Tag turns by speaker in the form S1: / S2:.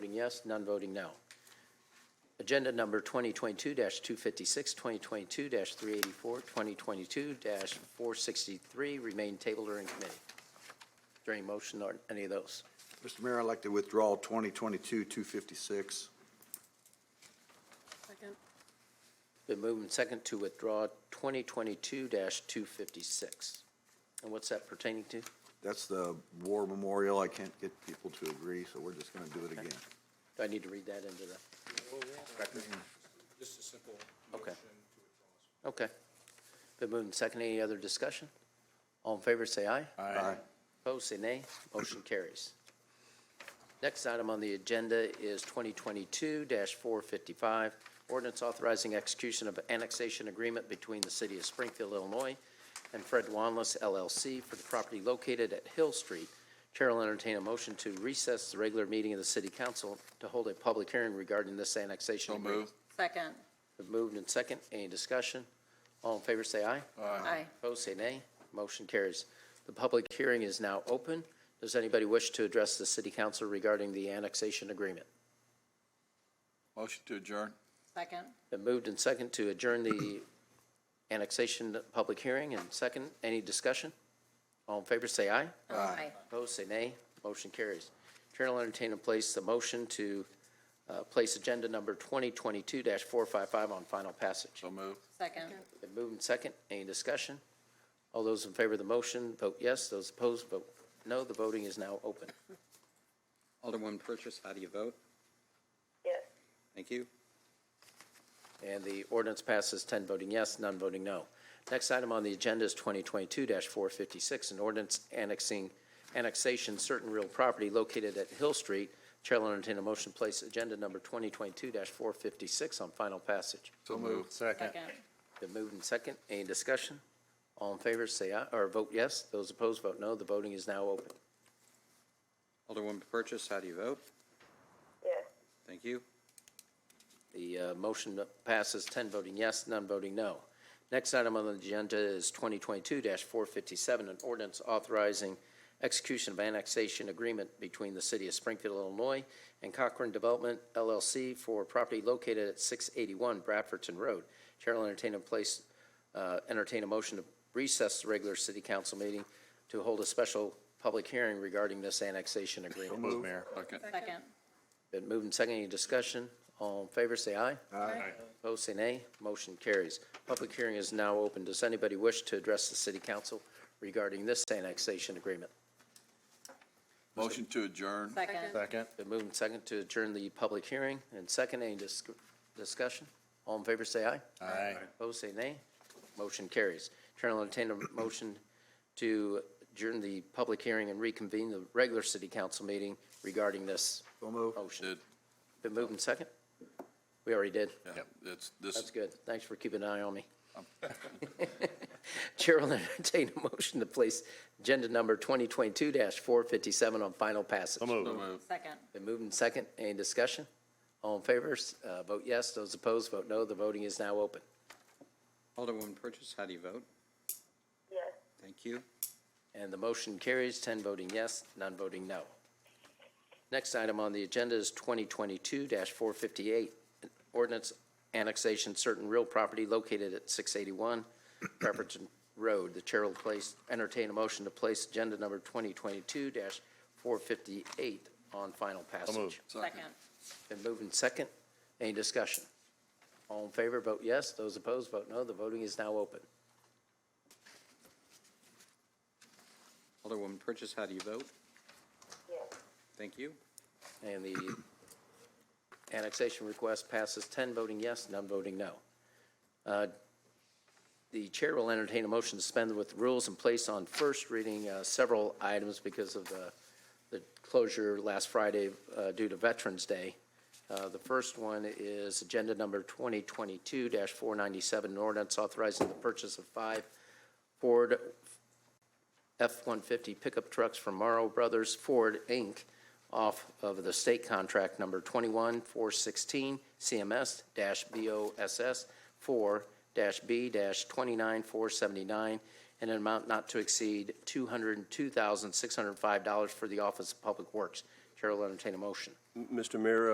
S1: yes, none voting no. Agenda number 2022-256, 2022-384, 2022-463 remain tabled or in committee. Is there any motion on any of those?
S2: Mr. Mayor, I'd like to withdraw 2022-256.
S3: Second.
S1: Been moved and second to withdraw 2022-256. And what's that pertaining to? Do
S2: That's the war memorial. I can't get people to agree, so we're just going to do it again.
S1: I need to read that into the?
S4: Just a simple
S1: Okay.
S4: motion.
S1: Okay. Been moved and second. Any other discussion? All in favor, say aye.
S2: Aye.
S1: Opposed, say nay. Motion carries. Next item on the agenda is 2022-455, ordinance authorizing execution of annexation agreement between the City of Springfield, Illinois and Fred Wanless LLC for the property located at Hill Street. Chair will entertain a motion to recess the regular meeting of the City Council to hold a public hearing regarding this annexation agreement.
S3: Second.
S1: Been Moved and second. Any discussion? All in favor, say aye.
S3: Aye.
S1: Opposed, say nay. Motion carries. The public hearing is now open. Does anybody wish to address the city council regarding the annexation agreement?
S5: Motion to adjourn.
S3: Second.
S1: Been moved and second to adjourn the annexation public hearing and second, any discussion? All in favor, say aye.
S3: Aye.
S1: Opposed, say nay. Motion carries. Chair will entertain and place the motion to uh, place agenda number 2022-455 on final passage.
S5: So moved.
S3: Second.
S1: Been moved and second. Any discussion? All those in favor of the motion, vote yes. Those opposed, vote no. The voting is now open.
S6: Alderman Purchase, how do you vote?
S7: yes.
S6: Thank you.
S1: And the ordinance passes 10 voting yes, none voting no. Next item on the agenda is 2022-456, an ordinance annexing, annexation certain real property located at Hill Street. Chair will entertain a motion to place agenda number 2022-456 on final passage.
S5: So moved. Second.
S3: Second.
S1: Been moved and second. Any discussion? All in favor, say aye, or vote yes. Those opposed, vote no. The voting is now open.
S6: Alderman Purchase, how do you vote?
S7: Yes.
S6: Thank you.
S1: The uh, motion passes 10 voting yes, none voting no. Next item on the agenda is 2022-457, an ordinance authorizing execution of annexation agreement between the City of Springfield, Illinois and Cochrane Development LLC for property located at 681 Bradfordton Road. Chair will entertain a place, uh, entertain a motion to recess the regular city council meeting to hold a special public hearing regarding this annexation agreement.
S5: Move, Mayor. Second.
S3: Second.
S1: Been moved and seconded. Any discussion? All in favor, say aye.
S2: Aye.
S1: Opposed, say nay. Motion carries. Public hearing is now open. Does anybody wish to address the city council regarding this annexation agreement?
S5: Motion to adjourn.
S3: Second.
S5: Second.
S1: Been moved and seconded to adjourn the public hearing, and second, any dis- discussion? All in favor, say aye.
S5: Aye.
S1: Opposed, say nay. Motion carries. Chair will entertain a motion to adjourn the public hearing and reconvene the regular city council meeting regarding this
S2: So moved.
S1: motion.
S5: Did,
S1: Been moved and second? We already did.
S5: yeah, that's, this
S1: That's good. Thanks for keeping an eye on me. Chair will entertain a motion to place agenda number 2022-457 on final passage.
S5: So moved.
S3: Second.
S1: Been moved and second. Any discussion? All in favor, s- uh, vote yes. Those opposed, vote no. The voting is now open.
S6: Alderman Purchase, how do you vote?
S7: Yes.
S6: Thank you.
S1: And the motion carries, 10 voting yes, none voting no. Next item on the agenda is 2022-458, an ordinance annexation certain real property located at 681 Pepperton Road. The chair will place, entertain a motion to place agenda number 2022-458 on final passage.
S3: Second.
S1: Been moved and second. Any discussion? All in favor, vote yes. Those opposed, vote no. The voting is now open.
S6: Alderman Purchase, how do you vote?
S7: Yes.
S6: Thank you.
S1: And the annexation request passes 10 voting yes, none voting no. Uh, The chair will entertain a motion to suspend with rules and place on first reading uh, several items because of the the closure last Friday uh, due to Veterans Day. Uh, The first one is Agenda Number 2022-497, an ordinance authorizing the purchase of five Ford F-150 pickup trucks from Morrow Brothers Ford, Inc., off of the state contract number 21416 CMS-BOSS 4-B-29479 in an amount not to exceed $202,605 for the Office of Public Works. Chair will entertain a motion.
S8: Mr. Mayor,